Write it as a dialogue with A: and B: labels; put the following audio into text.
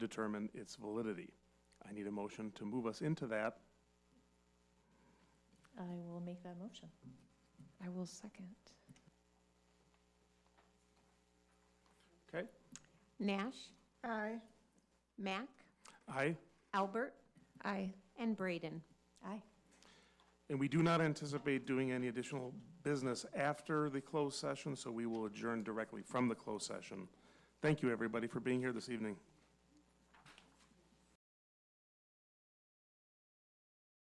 A: determine its validity. I need a motion to move us into that.
B: I will make that motion.
C: I will second.
A: Okay.
D: Nash,
B: Aye.
D: Mack,
A: Aye.
D: Albert,
C: Aye.
D: and Braden.
B: Aye.
A: And we do not anticipate doing any additional business after the closed session, so we will adjourn directly from the closed session. Thank you, everybody, for being here this evening.